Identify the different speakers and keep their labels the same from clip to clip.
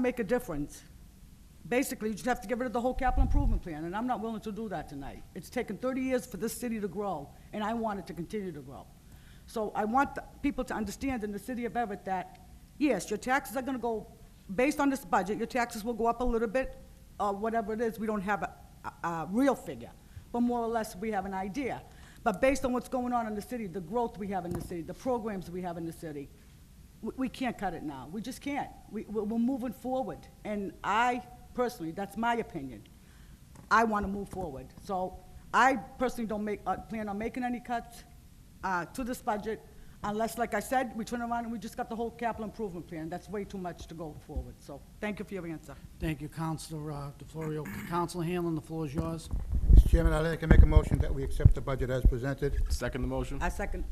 Speaker 1: make a difference. Basically, you just have to get rid of the whole capital improvement plan, and I'm not willing to do that tonight. It's taken 30 years for this city to grow, and I want it to continue to grow. So I want the people to understand in the city of Everett that, yes, your taxes are gonna go, based on this budget, your taxes will go up a little bit, or whatever it is, we don't have a, a- a real figure, but more or less, we have an idea. But based on what's going on in the city, the growth we have in the city, the programs we have in the city, we- we can't cut it now. We just can't. We, we're we're moving forward. And I personally, that's my opinion, I want to move forward. So I personally don't make, uh, plan on making any cuts uh, to this budget unless, like I said, we turn around and we just got the whole capital improvement plan. That's way too much to go forward. So thank you for your answer.
Speaker 2: Thank you, Counselor uh, DeFlorio. Counselor Hanlon, the floor is yours.
Speaker 3: Mr. Chairman, I'd like to make a motion that we accept the budget as presented.
Speaker 4: Second the motion?
Speaker 1: I second,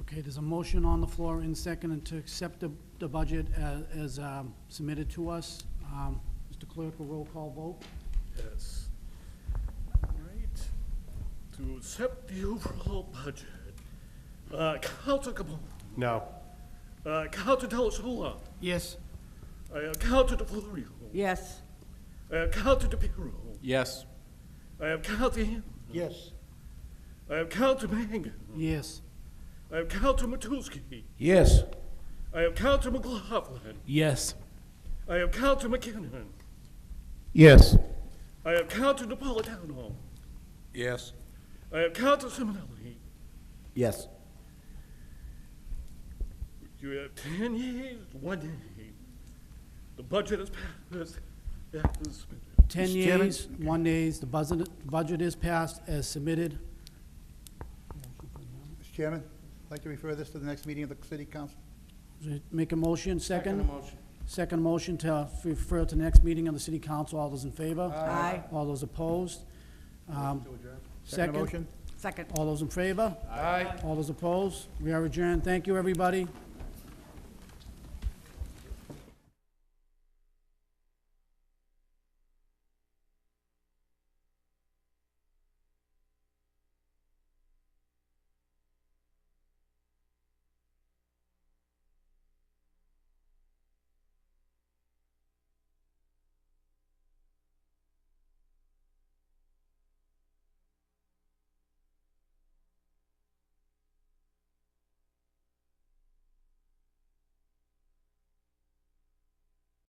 Speaker 2: Okay, there's a motion on the floor in second and to accept the, the budget a- as um, submitted to us. Um, Mr. Clerk, a roll call vote.
Speaker 5: Yes. All right. To accept the overall budget, uh, Counselor Capone,
Speaker 4: No.
Speaker 5: uh, Counselor Delasola,
Speaker 2: Yes.
Speaker 5: uh, Counselor DeFlorio,
Speaker 1: yes.
Speaker 5: uh, Counselor DePiero,
Speaker 4: Yes.
Speaker 5: I have Counselor Ham,
Speaker 3: Yes.
Speaker 5: I have Counselor Uh, Mangan,
Speaker 2: Yes.
Speaker 5: I have Counselor Matusky,
Speaker 4: Yes.
Speaker 5: I have Counselor McLaughlin,
Speaker 4: Yes.
Speaker 5: I have Counselor McKinnon,
Speaker 4: Yes.
Speaker 5: I have Counselor Napolitano,
Speaker 3: Yes.
Speaker 5: I have Counselor Simonelli.
Speaker 4: Yes.
Speaker 5: You have ten yeas, one nay. The budget is passed, as submitted.
Speaker 2: Ten
Speaker 3: Mr. Chairman?
Speaker 2: yeas, one nays, the budget, budget is passed as submitted.
Speaker 3: Mr. Chairman, I'd like to refer this to the next meeting of the city council.
Speaker 2: Make a motion, second? Second motion to refer to the next meeting of the city council. All those in favor?
Speaker 1: Aye.
Speaker 2: All those opposed? Um,
Speaker 3: Second motion?
Speaker 1: Second.
Speaker 2: All those in favor?
Speaker 3: Aye.
Speaker 2: All those opposed? We are adjourned. Thank you, everybody.